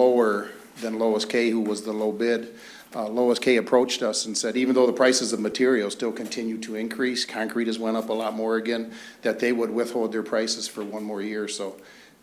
lower than Lois K., who was the low bid. Uh, Lois K. approached us and said, even though the prices of materials still continue to increase, concrete has went up a lot more again, that they would withhold their prices for one more year. So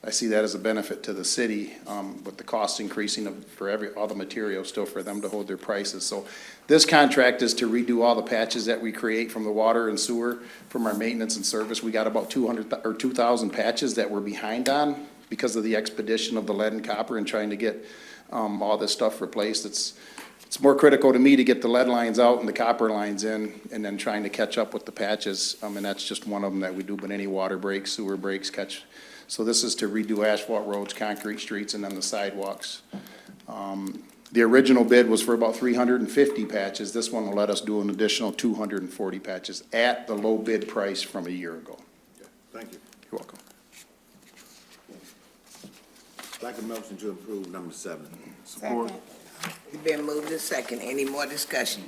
I see that as a benefit to the city, um, with the cost increasing of, for every, all the materials still for them to hold their prices. So this contract is to redo all the patches that we create from the water and sewer, from our maintenance and service. We got about two hundred, or two thousand patches that we're behind on because of the expedition of the lead and copper and trying to get, um, all this stuff replaced. It's, it's more critical to me to get the lead lines out and the copper lines in, and then trying to catch up with the patches. I mean, that's just one of them that we do, but any water breaks, sewer breaks, catch. So this is to redo asphalt roads, concrete streets, and then the sidewalks. Um, The original bid was for about three hundred and fifty patches. This one will let us do an additional two hundred and forty patches at the low bid price from a year ago. Thank you. You're welcome. I'd like a motion to approve number seven. Support. It's Been moved to second. Any more discussion?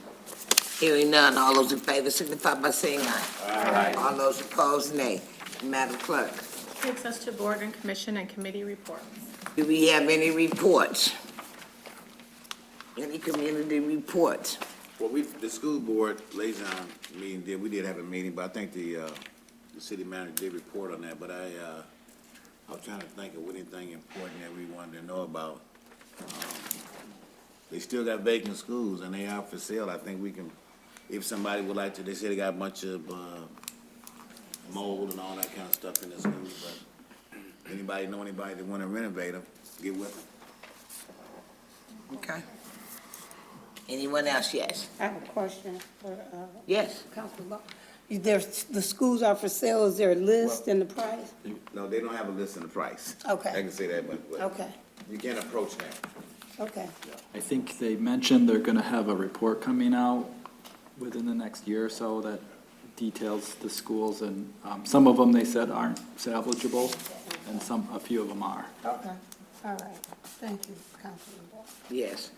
Hearing none. All those in favor signify by saying aye. Aye. All those opposed, nay. Madam Clerk, Takes us to board and commission and committee reports. do we have any reports? Any community reports? Well, we, the school board liaison meeting, did, we did have a meeting, but I think the, uh, the city manager did report on that, but I, uh, I was trying to think of anything important that we wanted to know about. Um, They still got vacant schools and they are for sale. I think we can, if somebody would like to, they said they got a bunch of, uh, mold and all that kind of stuff in the schools, but anybody know anybody that wanna renovate them, get with them. Okay. Anyone else? Yes. I have a question for uh, Yes. Councilman Law. Is there, the schools are for sale, is there a list and the price? No, they don't have a list and the price. Okay. I can say that, but, but Okay, you can't approach that. okay. I think they mentioned they're gonna have a report coming out within the next year or so that details the schools and, um, some of them they said aren't salvageable and some, a few of them are. Okay, all right. Thank you, Councilman Law. Yes.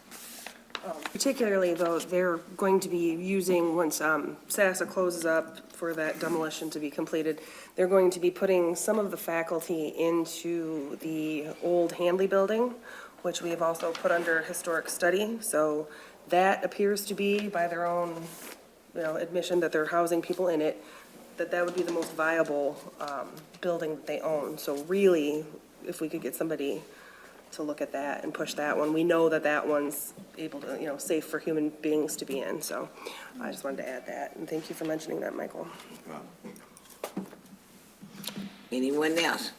Particularly though, they're going to be using, once um, SASSA closes up for that demolition to be completed, they're going to be putting some of the faculty into the old Handley Building, which we have also put under historic study. So that appears to be by their own, you know, admission that they're housing people in it, that that would be the most viable um, building that they own. So really, if we could get somebody to look at that and push that one. We know that that one's able to, you know, safe for human beings to be in, so I just wanted to add that, and thank you for mentioning that, Michael. Anyone else?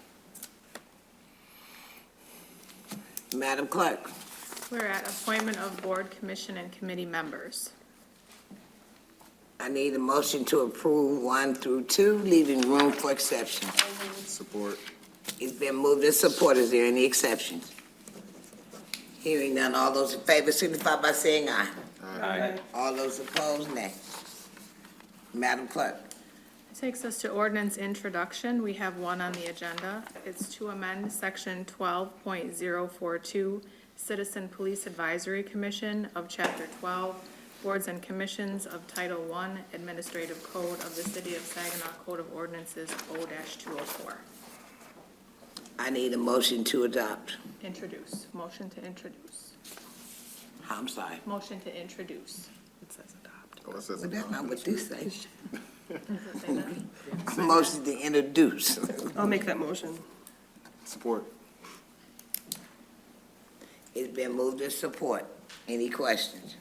Madam Clerk, We're at appointment of board, commission, and committee members. I need a motion to approve one through two, leaving room for exceptions. Support. It's been moved and supported. Is there any exceptions? Hearing none, all those in favor signify by saying aye. Aye. All those opposed, nay. Madam Clerk, Takes us to ordinance introduction. We have one on the agenda. It's to amend section twelve point zero four two, Citizen Police Advisory Commission of Chapter twelve, Boards and Commissions of Title One, Administrative Code of the City of Saginaw Code of Ordinances O two oh four. I need a motion to adopt. Introduce. Motion to introduce. I'm sorry. Motion to introduce. It says adopt. Well, that's not what this says. Does it say that? Motion to introduce. I'll make that motion. Support. It's been moved and support. Any questions?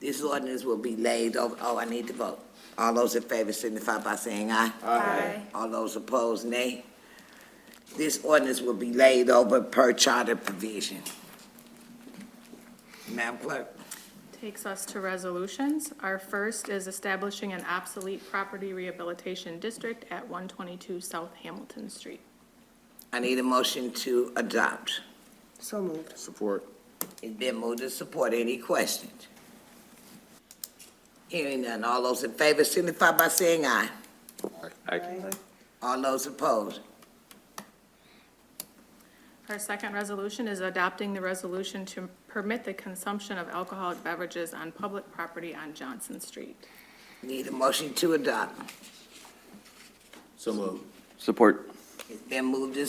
This ordinance will be laid over, oh, I need to vote. All those in favor signify by saying aye. Aye. All those opposed, nay. This ordinance will be laid over per charter provision. Madam Clerk, Takes us to resolutions. Our first is establishing an obsolete property rehabilitation district at 122 South Hamilton Street. I need a motion to adopt. So moved. Support. It's been moved and support. Any questions? Hearing none. All those in favor signify by saying aye. All those opposed? Our second resolution is adopting the resolution to permit the consumption of alcoholic beverages on public property on Johnson Street. Need a motion to adopt. So moved. Support. It's been moved and